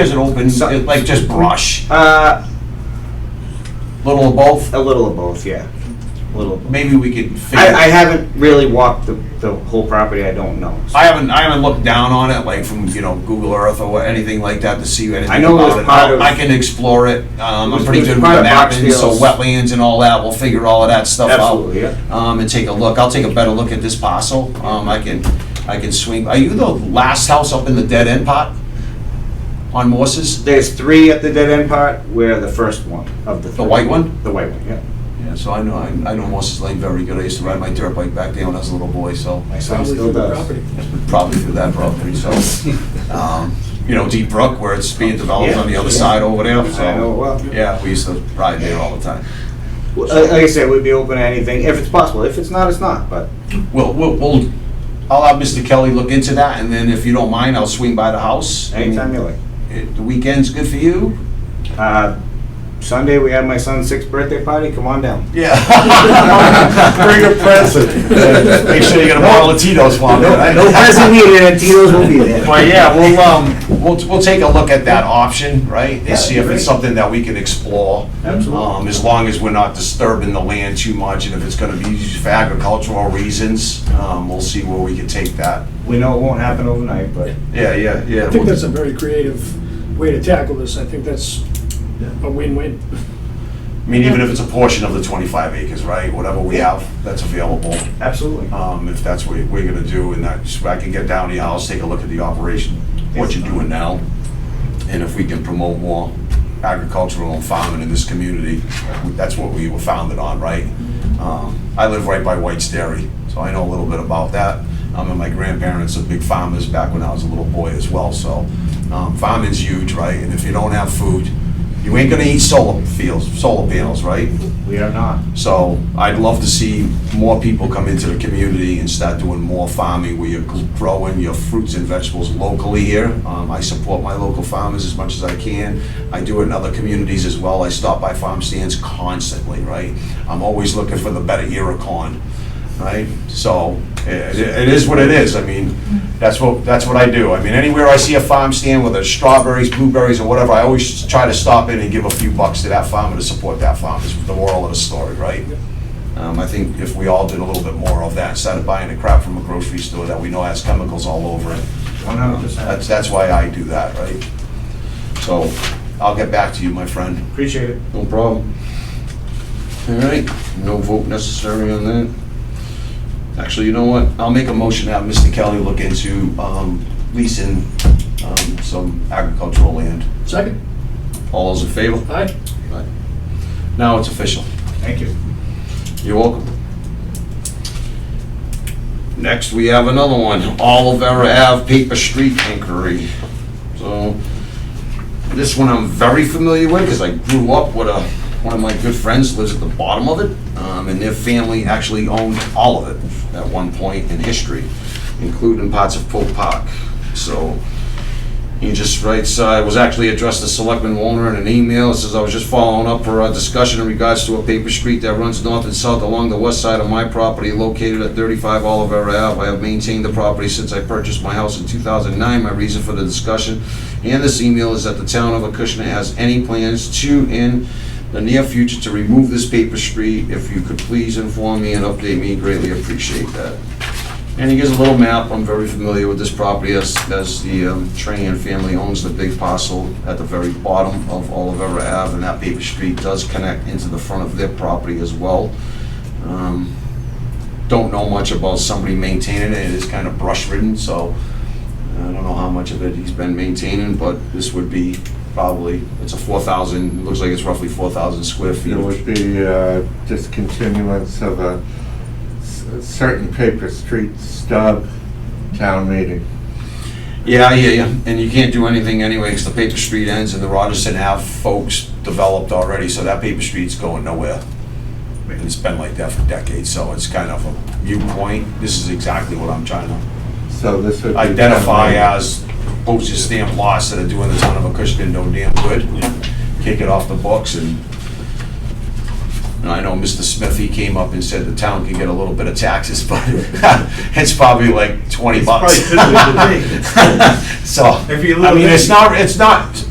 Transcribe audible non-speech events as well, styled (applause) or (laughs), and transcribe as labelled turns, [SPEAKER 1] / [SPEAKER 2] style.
[SPEAKER 1] is it open,
[SPEAKER 2] So-
[SPEAKER 1] it- like just brush,
[SPEAKER 2] Uh,
[SPEAKER 1] little of both?
[SPEAKER 2] a little of both, yeah. A little. Of both.
[SPEAKER 1] Maybe we could figure.
[SPEAKER 2] I, I haven't really walked the, the whole property. I don't know. So
[SPEAKER 1] I haven't, I haven't looked down on it, like from, you know, Google Earth or anything like that to see anything
[SPEAKER 2] I know it was
[SPEAKER 1] about it.
[SPEAKER 2] part of-
[SPEAKER 1] I can explore it, um,
[SPEAKER 2] It
[SPEAKER 1] I'm
[SPEAKER 2] was-
[SPEAKER 1] pretty
[SPEAKER 2] it was
[SPEAKER 1] good with
[SPEAKER 2] part of
[SPEAKER 1] mapping, so
[SPEAKER 2] Boxfield's-
[SPEAKER 1] wetlands and all that, we'll figure all of that stuff out.
[SPEAKER 2] Absolutely, yeah.
[SPEAKER 1] Um, and take a look, I'll take a better look at this parcel, um, I can, I can swing, are you the last house up in the dead end pot? On Morse's,
[SPEAKER 2] there's three at the dead end part. We're the first one of the.
[SPEAKER 1] the
[SPEAKER 2] Three.
[SPEAKER 1] white one?
[SPEAKER 2] The white one. Yeah.
[SPEAKER 1] Yeah, so I know, I I know Morse's Lane very good, I used to ride my dirt bike back there when I was a little boy, so.
[SPEAKER 2] My son
[SPEAKER 3] Probably
[SPEAKER 2] still
[SPEAKER 3] through the
[SPEAKER 2] does.
[SPEAKER 3] property.
[SPEAKER 1] probably through that property, so, um, you know, Deep Brook, where it's being developed on the other side over there,
[SPEAKER 2] I know it
[SPEAKER 1] so,
[SPEAKER 2] well.
[SPEAKER 1] Oh. yeah, we used to ride there all the time.
[SPEAKER 2] Well, Like like I said, we'd be open to anything if it's possible. If it's not, it's not. But
[SPEAKER 1] We'll, we'll, we'll, I'll have Mr. Kelly look into that, and then if you don't mind, I'll swing by the house.
[SPEAKER 2] anytime you like.
[SPEAKER 1] It- The weekend's good for you?
[SPEAKER 2] Uh, Sunday we have my son's sixth birthday party. Come on down.
[SPEAKER 1] (laughs) Yeah.
[SPEAKER 2] Bring a present.
[SPEAKER 1] Make sure you get a bottle of Tito's while
[SPEAKER 2] No,
[SPEAKER 1] there.
[SPEAKER 2] no present needed. and Tito's will be there.
[SPEAKER 1] Well, yeah, we'll, um, we'll, we'll take a look at that option, right? And see if it's
[SPEAKER 2] great.
[SPEAKER 1] something that we can explore.
[SPEAKER 2] Absolutely.
[SPEAKER 1] Um, as long as we're not disturbing the land too much, and if it's gonna be used for agricultural reasons, um, we'll see where we can take that.
[SPEAKER 2] We know it won't happen overnight, but
[SPEAKER 1] Yeah, yeah, yeah.
[SPEAKER 3] I think that's a very creative way to tackle this. I think that's a win-win.
[SPEAKER 1] I mean, even if it's a portion of the twenty-five acres, right, whatever we have, that's available,
[SPEAKER 2] absolutely.
[SPEAKER 1] um, if that's what we're gonna do, and that's, I can get down to your house, take a look at the operation, what you're doing now, and if we can promote more agricultural and farming in this community, that's what we were founded on, right? Um, I live right by White's Dairy, so I know a little bit about that. Um, and my grandparents are big farmers back when I was a little boy as well, so, um, farming's huge, right? And if you don't have food, you ain't gonna eat solar fields, solar panels, right?
[SPEAKER 2] We are not.
[SPEAKER 1] So I'd love to see more people come into the community and start doing more farming where you're growing your fruits and vegetables locally here. Um, I support my local farmers as much as I can. I do it in other communities as well. I stop by farm stands constantly, right? I'm always looking for the better Irricon, right? So it, it is what it is. I mean, that's what, that's what I do. I mean, anywhere I see a farm stand, whether it's strawberries, blueberries, or whatever, I always try to stop in and give a few bucks to that farmer to support that farmer, is the moral of the story, right? Um, I think if we all did a little bit more of that, instead of buying the crap from a grocery store that we know has chemicals all over it.
[SPEAKER 2] One hundred percent.
[SPEAKER 1] That's, that's why I do that, right? So I'll get back to you, my friend.
[SPEAKER 2] Appreciate it.
[SPEAKER 1] No problem. All right, no vote necessary on that. Actually, you know what? I'll make a motion to have Mr. Kelly look into um, leasing um, some agricultural land.
[SPEAKER 3] Second?
[SPEAKER 1] All those in favor?
[SPEAKER 3] Aye.
[SPEAKER 1] Now it's official.
[SPEAKER 2] Thank you.
[SPEAKER 1] You're welcome. Next, we have another one, Olivera Ave Paper Street Inquiry. So, this one I'm very familiar with, because I grew up with a, one of my good friends lives at the bottom of it, um, and their family actually owned all of it at one point in history, including parts of Pope Park. So, he just writes, uh, it was actually addressed to Selectman Warner in an email. It says, I was just following up for a discussion in regards to a paper street that runs north and south along the west side of my property located at 35 Olivera Ave. I have maintained the property since I purchased my house in 2009. My reason for the discussion and this email is that the town of Acushnet has any plans to, in the near future, to remove this paper street. If you could please inform me and update me, greatly appreciate that. And he gives a little map, I'm very familiar with this property, as, as the um, Trahan family owns the big parcel at the very bottom of Olivera Ave, and that paper street does connect into the front of their property as well. Um, Don't know much about somebody maintaining it, it is kind of brush ridden, so I don't know how much of it he's been maintaining, but this would be probably, it's a four thousand, looks like it's roughly four thousand square feet.
[SPEAKER 4] It would be uh, just continuance of a s- certain paper street stub town meeting.
[SPEAKER 1] Yeah, I hear you. And you can't do anything anyway, because the paper street ends and the Rogerson Ave folks developed already, so that paper street's going nowhere. And it's been like that for decades, so it's kind of a viewpoint. This is exactly what I'm trying to
[SPEAKER 4] So this would be town
[SPEAKER 1] identify
[SPEAKER 4] meeting.
[SPEAKER 1] as postage stamp lots that are doing the town of Acushnet no damn good. Kick it off the books and, and I know Mr. Smith, he came up and said the town can get a little bit of taxes, (laughs) but it's probably like twenty bucks.
[SPEAKER 5] Probably should have been
[SPEAKER 1] (laughs) So,
[SPEAKER 5] If you
[SPEAKER 1] I
[SPEAKER 5] live
[SPEAKER 1] mean,
[SPEAKER 5] in-
[SPEAKER 1] it's not, it's not